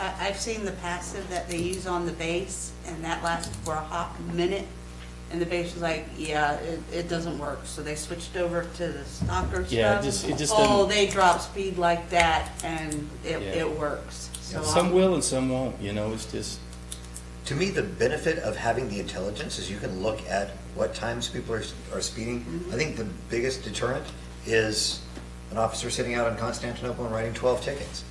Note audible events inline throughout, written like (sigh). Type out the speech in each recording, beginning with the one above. I, I've seen the passive that they use on the base, and that lasted for a hot minute, and the base was like, yeah, it, it doesn't work, so they switched over to the stalker stuff. Yeah, it just- it just Oh, doesn't- they drop speed like that, and it, Yeah. it works, so. Some I'm- will and some won't, you know, it's just, To me, the benefit of having the intelligence is you can look at what times people are, are speeding. Mm-hmm. I think the biggest deterrent is an officer sitting out in Constantinople and writing 12 tickets.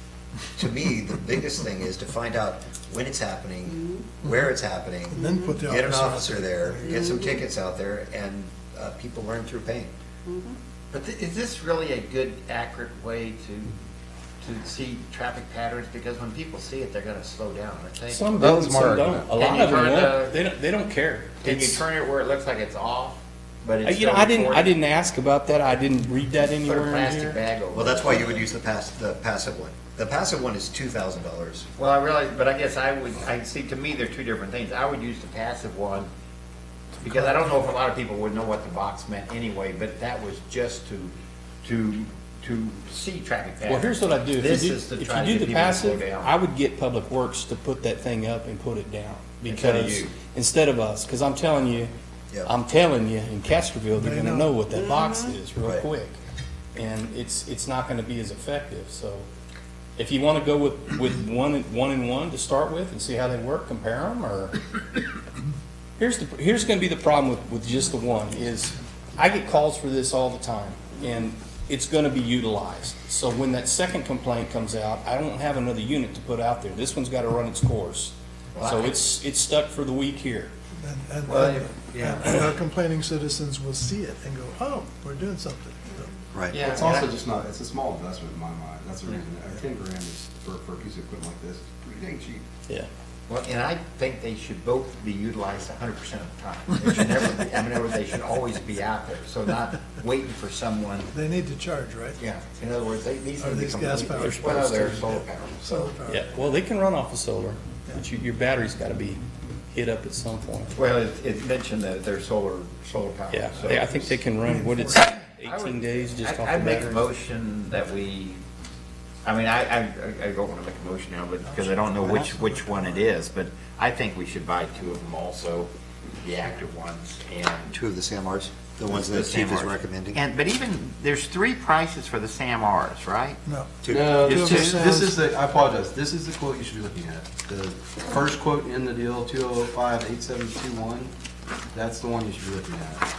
To (laughs) me, the biggest thing is to find out when it's happening, where it's happening. Mm-hmm. And then put the Get an officer officer out Mm-hmm. there, get some tickets out there, and uh, people learn through pain. But thi- is this really a good, accurate way to, to see traffic patterns? Because when people see it, they're gonna slow down, aren't they? some That do and was my some don't. argument. A Can lot you of them turn the- won't, they don't, they don't care. Can you It's- turn it where it looks like it's off, but Uh, it's You know, still I didn't, I recorded? didn't ask about that, I didn't read that Put a anywhere in plastic here. bag over. Well, that's why you would it. use the pass, the passive one. The passive one is $2,000. Well, I realize, but I guess I would, I see, to me, they're two different things. I would use the passive one, because I don't know if a lot of people would know what the box meant anyway, but that was just to, to, to see traffic patterns. Well, here's what I do, if This you do, is to if try to you get do the people to slow passive, down. I would get Public Works to put that thing up and put it down. Instead of Because, you. instead of us, because I'm telling you, Yeah. I'm telling you, in Castroville, they're They gonna know. know what that box is real Right. quick. And it's, it's not gonna be as effective, so. If you wanna go with, with one, and- one and one to start with and see how they work, compare them, or. (coughs) Here's the, here's gonna be the problem with, with just the one, is I get calls for this all the time, and it's gonna be utilized. So when that second complaint comes out, I don't have another unit to put out there. This one's gotta run its course. So it's, it's stuck for the week here. And, and, Well, and- yeah. and our complaining citizens will see it and go, oh, we're doing something. So, Right. Yeah. It's also just not, it's a small investment in my mind, that's the reason, Uh, ten grand is, for, for a piece of equipment like this, is pretty dang cheap. Yeah. Well, and I think they should both be utilized hundred percent of the time. They should never, be- I mean, they should always be out there, so not waiting for someone, They need to charge, right? yeah. In other words, they, these Are need to these come. gas powered? Well, they're solar powered, so. Solar power. Yeah, well, they can run off of solar, but you, your battery's gotta be hit up at some point. Well, it, it mentioned that they're solar, solar powered. Yeah, so- they- I think they can run, what it's, I would- eighteen days just I- off the I'd make a battery. motion that we, I mean, I, I, I don't want to make a motion now, but, because I don't know which, which one it is, but I think we should buy two of them also, the active ones, and. Two of the SAMRs, the ones that the Sam chief is Rs. recommending. And, but even, there's three prices for the Sam Rs, right? No, Two. this Two is, percent. this is the, I apologize, this is the quote you should be looking at. The first quote in the deal, two oh five eight seven two one, that's the one you should be looking at.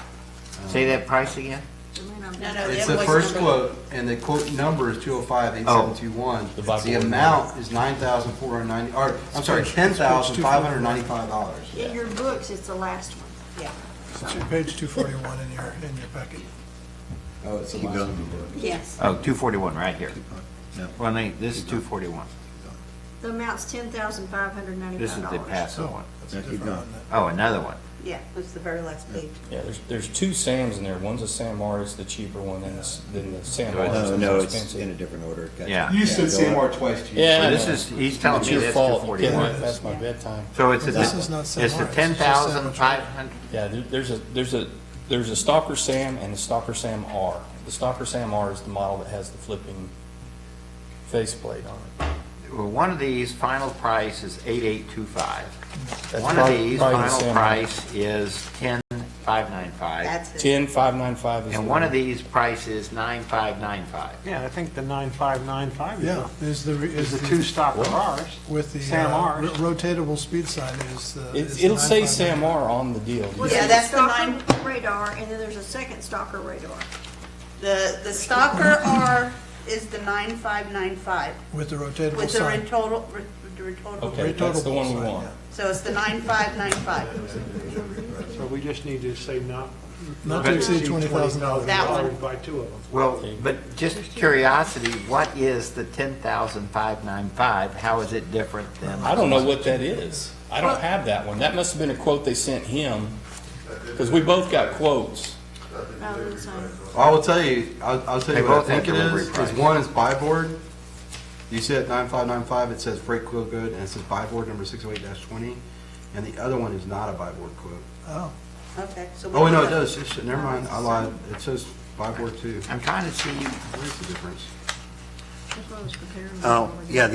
Say that price again? No, no, It's it the was first Oh, number- quote, and the quote number is two oh five eight seven two one. The Bible. Oh, The amount is nine thousand four hundred ninety, or, I'm sorry, ten thousand five hundred ninety-five dollars. In your books, it's the last one. Yeah, it's your page two forty-one in your, in your packet. Oh, it's the Keep last going. one. yes. Oh, two forty-one, right here. No. Well, no, this is two forty-one. The amount's ten thousand five hundred This is ninety-five the dollars. passive So, one. that's Yeah, keep different going. on that. Oh, another one. Yeah, it's the very last page. Yeah, there's, there's two Sams in there, one's a Sam R, it's the cheaper one, and the, than the Sam R. Oh, No, is no, more it's expensive. in a different order. Gotcha. Yeah. You Yeah, said go Sam up. R twice, Chief. Yeah, So I this know. is, he's telling It's me your that's two fault. You can't forty-one. run past my bedtime. So it's, a- This is not it's Sam the Morris, it's ten just thousand Sam five hundred, Yeah, there- there's a, there's a, there's a Stalker Sam and a Stalker Sam R. The Stalker Sam R is the model that has the flipping faceplate on it. well, one of these, final price is eight eight two five. That's One of probably- these, probably the final Sam R. price is ten five nine five. That's it. Ten, five nine five is. And the one of these price is nine five nine five. Yeah, I think the 9595 Yeah, there's the, re- is is the the, two-stop cars. with the Sam uh, R's. ro- rotatable speed sign is, uh. It- is It'll say 959. Sam R on the deal. Well, Yeah, there's a that's the stalker nine- Radar, and then there's a second stalker radar. The, the stalker R is the nine five nine five With the rotatable with the sign. retotal, re- re- retotal. Okay, that's the Rotatable one we sign, want. So it's the nine five nine five. So we just need to say not. Not to exceed twenty thousand dollars. That one. Buy two of them. Well, but just curiosity, what is the ten thousand five nine five? How is it different than? I don't know what that is. I don't have that one. That must have been a quote they sent him, because we both got quotes. Oh, that's on- I will tell you, I'll, I'll tell They you what I both have think it delivery is, is price. one is buy board. You see it nine five nine five, it says freight quote good, and it says buy board number six oh eight twenty, and the other one is not a buy board quote. Oh, Okay, so. we Oh, wait, do no, it that. does, it's, never mind, I lied, it says buy board two, I'm trying to see where's the difference? that's what I was comparing. Oh, yeah,